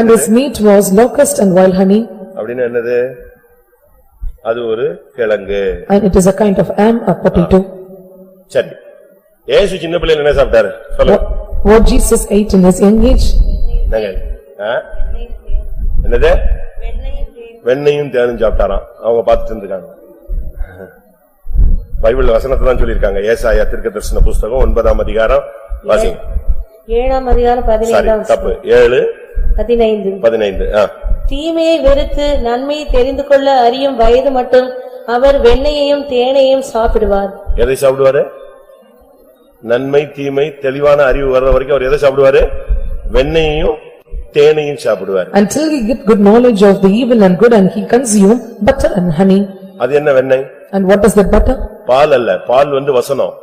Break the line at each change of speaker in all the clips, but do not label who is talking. And his meat was locust and wild honey,
அப்படின்னா என்னது? அது ஒரு கிழங்கு.
and it is a kind of am, a potato.
சரி. ஏசு சின்ன பிள்ளையில என்ன சாப்பிட்டாரு? சொல்லுங்க.
What what Jesus ate in his young age,
என்னங்க? ஆ? என்னது? வெண்ணையும் தேனும் சாப்பிட்டாராம். அவங்க பார்த்துட்டு இருந்திருக்காங்க. பைபிள் வசனத்தை தான் சொல்லியிருக்காங்க. ஏசாயா தீர்க்கதரிசன புஸ்தகம் ஒன்பதாம் அதிகாரம் வாசிங்க.
ஏழாம் அதிகாரம்
சாரி
பதினைந்தாம்
தப்பு. ஏழு
பதினைந்து
பதினைந்து. ஆ.
தீமையை வெறுத்து நன்மையை தெரிந்து கொள்ள அறியும் வயது மட்டும் அவர் வெண்ணையையும் தேனையும் சாப்பிடுவார்
எதை சாப்பிடுவாரு? நன்மை, தீமை, தெளிவான அறிவு வர்ற வரைக்கும் அவர் எதை சாப்பிடுவாரு? வெண்ணையையும் தேனையும் சாப்பிடுவாரு.
until he get good knowledge of the evil and good, and he consume butter and honey.
அது என்ன வெண்ணெய்?
And what is that butter?
பால் அல்ல, பால் வந்து வசனம்.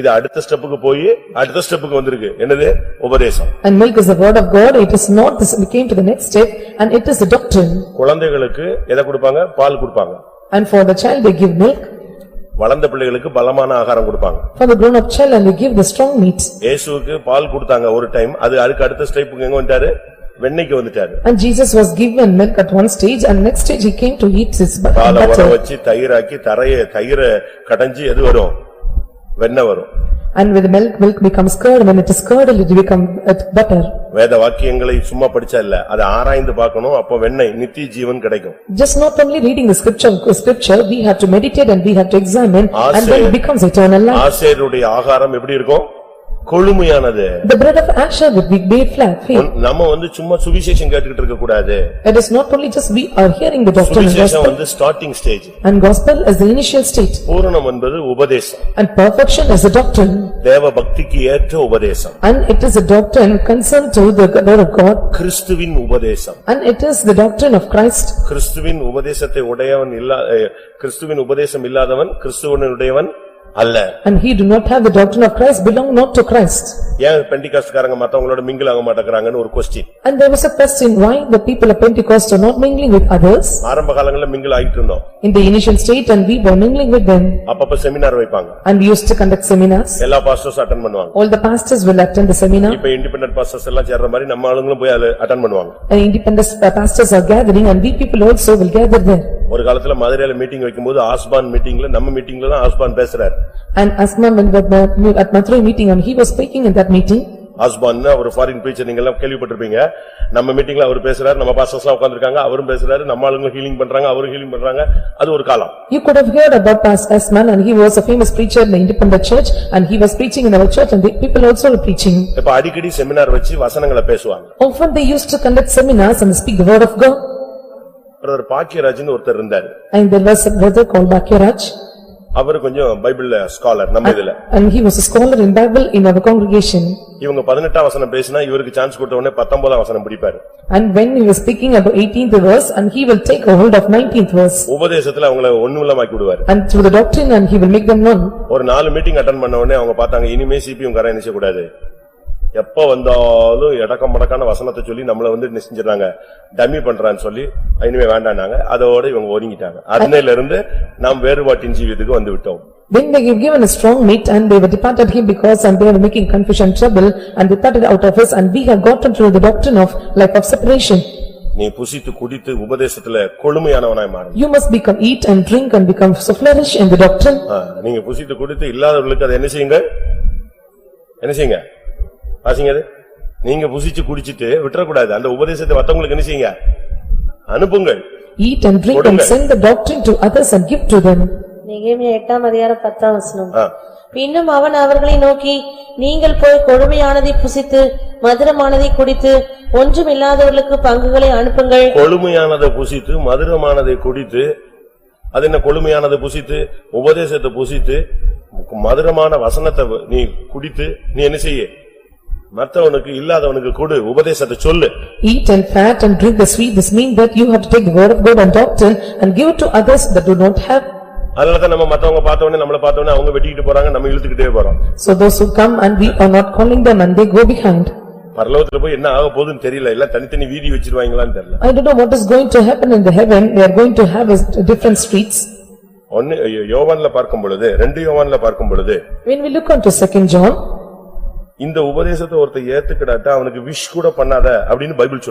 இது அடுத்த ஸ்டெப்புக்கு போய் அடுத்த ஸ்டெப்புக்கு வந்திருக்கு. என்னது? உபதேசம்.
And milk is the word of God, it is not, this we came to the next step, and it is the doctrine.
குழந்தைகளுக்கு எதை கொடுப்பாங்க? பால் கொடுப்பாங்க.
And for the child they give milk,
வளர்ந்த பிள்ளைகளுக்கு பலமான ஆகாரம் கொடுப்பாங்க.
for the grown-up child and they give the strong meat.
இயேசுவுக்கு பால் கொடுத்தாங்க ஒரு டைம். அது அதுக்கு அடுத்த ஸ்டெப்புக்கு எங்க வந்துட்டாரு? வெண்ணெய்க்கு வந்துட்டாரு.
And Jesus was given milk at one stage, and next stage he came to eat his bu-
பாலை வர
butter.
வச்சு தயிராக்கி தரைய தயிர கடைஞ்சு எது வரும்? வெண்ணெய் வரும்.
And with milk, milk becomes curd, when it is curdled, it become uh, butter.
வேத வாக்கியங்களை சும்மா படிச்சா இல்ல. அதை ஆராய்ந்து பார்க்கணும். அப்ப வெண்ணெய் நித்திய ஜீவன் கிடைக்கும்.
Just not only reading the scripture, scripture, we have to meditate and we have to examine, and then
Asher.
it becomes eternal life.
ஆசேருடைய ஆகாரம் எப்படி இருக்கும்? கொழுமையானது.
The bread of Asher would be made flat, faith.
உன்- நம்ம வந்து சும்மா சுவிசேஷம் கேட்டுக்கிட்டு இருக்கக்கூடாது.
It is not only just we are hearing the doctrine and
சுவிசேஷம்
gospel,
வந்து starting stage.
and gospel is the initial state,
பூரணம் என்பது உபதேசம்.
and perfection is the doctrine,
தேவ பக்திக்கு ஏற்ற உபதேசம்.
and it is a doctrine concerned to the word of God,
கிறிஸ்துவின் உபதேசம்.
and it is the doctrine of Christ.
கிறிஸ்துவின் உபதேசத்தை உடையவன் இல்லா, அஹ், கிறிஸ்துவின் உபதேசம் இல்லாதவன் கிறிஸ்துவனுடையவன் அல்ல.
And he do not have the doctrine of Christ belong not to Christ.
ஏன் பெண்டிகாஸ்ட்காரங்க மத்தவங்களோட மிங்கில் ஆக மாட்டேங்கறாங்கன்னு ஒரு question.
And there was a question why the people of Pentecost are not mingling with others
ஆரம்ப காலங்கள்ல மிங்கில் ஆயிட்டு இருந்தோம்.
in the initial state and we were mingling with them.
அப்பப்ப செமினார் வைப்பாங்க.
And we used to conduct seminars.
எல்லா pastors attend பண்ணுவாங்க.
All the pastors will attend the seminar
இப்ப independent pastors எல்லாம் சேர்ற மாதிரி நம்ம ஆளுங்களும் போய் அட்டன் பண்ணுவாங்க.
and independent uh, pastors are gathering and we people also will gather there.
ஒரு காலத்துல மதுரையில மீட்டிங் வைக்கும்போது ஆஸ்பான் மீட்டிங்ல நம்ம மீட்டிங்ல தான் ஆஸ்பான் பேசுறாரு.
And Asman when we were at Mathura meeting and he was speaking in that meeting
Osborn அவர் ஃபாரின் preacher நீங்க எல்லாம் கேள்விப்பட்டிருப்பீங்க. நம்ம மீட்டிங்ல அவர் பேசுறாரு, நம்ம பாஸ்டர்ஸ்லாம் உட்கார்ந்திருக்காங்க, அவரும் பேசுறாரு, நம்ம ஆளுங்க ஹீலிங் பண்றாங்க, அவரும் ஹீலிங் பண்றாங்க. அது ஒரு காலம்.
you could have heard about Pas- Asman and he was a famous preacher in the independent church and he was preaching in our church and the people also were preaching.
இப்ப அடிக்கடி seminar வச்சு வசனங்களை பேசுவாங்க.
Often they used to conduct seminars and speak the word of God
brother பாக்கியராஜ்னு ஒருத்தர் இருந்தாரு.
and there was a brother called Bakyaraj
அவர் கொஞ்சம் பைபிள்ல ஸ்காலர் நம்ம இதுல.
And he was a scholar in Bible in our congregation.
இவங்க பதினெட்டாம் வசனம் பேசினா இவருக்கு சான்ஸ் கொடுத்த உடனே பத்தொன்பதாம் வசனம் பிடிப்பாரு.
And when he was speaking about eighteenth verse and he will take a hold of nineteenth verse.
உபதேசத்துல அவங்கள ஒண்ணுமில்லமாக்கி விடுவாரு.
And through the doctrine and he will make them known.
ஒரு நாலு மீட்டிங் அட்டன் பண்ண உடனே அவங்க பார்த்தாங்க இனிமே சிபியும் கரை நிச்சய கூடாது. எப்ப வந்தாலும் எடக்கம் மடக்கான வசனத்தை சொல்லி நம்மள வந்து நிச்சயறாங்க. டம்மி பண்றான்னு சொல்லி இனிமே வேண்டாம்னாங்க. அதோட இவங்க ஒதுங்கிட்டாங்க. அதனையில இருந்து நாம் வேறுபாட்டின் ஜீவியத்துக்கு வந்து விட்டோம்.
Then they have given a strong meat and they were departed him because and they were making confusion trouble and departed out of us and we have gotten through the doctrine of life of separation.
நீ புசித்து குடித்து உபதேசத்துல கொழுமையானவனாய் மாறணும்.
You must become eat and drink and become so flourish in the doctrine.
ஆ, நீங்க புசித்து குடித்து இல்லாதவர்களுக்கு அதை என்ன செய்யுங்க? என்ன செய்யுங்க? வாசிங்க அது. நீங்க புசிச்சு குடிச்சிட்டு விட்டுறக்கூடாது. அந்த உபதேசத்தை மத்தவங்களுக்கு என்ன செய்யுங்க? அனுப்புங்கள்.
Eat and drink and
கொடுங்க.
send the doctrine to others and give to them.
நெகேமியா எட்டாம் அதிகாரம் பத்தாம் வசனம்
ஆ.
பின்னும் அவன் அவர்களை நோக்கி நீங்கள் போய் கொடுமையானதை புசித்து மதுரமானதை குடித்து ஒன்றுமில்லாதவர்களுக்கு பங்குகளை அனுப்புங்கள்
கொழுமையானதை புசித்து, மதுரமானதை குடித்து, அது என்ன கொழுமையானதை புசித்து, உபதேசத்தை புசித்து, மதுரமான வசனத்தை நீ குடித்து, நீ என்ன செய்ய? மத்தவனுக்கு இல்லாதவனுக்கு கொடு, உபதேசத்தை சொல்லு.
Eat and fat and drink the sweet, this means that you have to take the word of God and doctrine and give it to others that do not have.
அதனாலதான் நம்ம மத்தவங்க பார்த்தவனே, நம்மள பார்த்தவனே, அவங்க வெட்டிக்கிட்டு போறாங்க, நம்ம இழுத்துக்கிட்டே போறோம்.
So those who come and we are not calling them and they go behind.
பரலோகத்துல போய் என்ன ஆக போகுதுன்னு தெரியல, எல்லாம் தனித்தனி வீதி வச்சிருவாங்களான்னு தெரியல.
I don't know what is going to happen in the heaven, they are going to have is- different streets.
ஒன்னு யோவான்ல பார்க்கும் பொழுது, ரெண்டு யோவான்ல பார்க்கும் பொழுது,
When we look on to second John,
இந்த உபதேசத்தை ஒருத்தன் ஏத்துக்கிடாட்டா, அவனுக்கு விஷ் கூட பண்ணாத, அப்படின்னு பைபிள் சொல்லுது.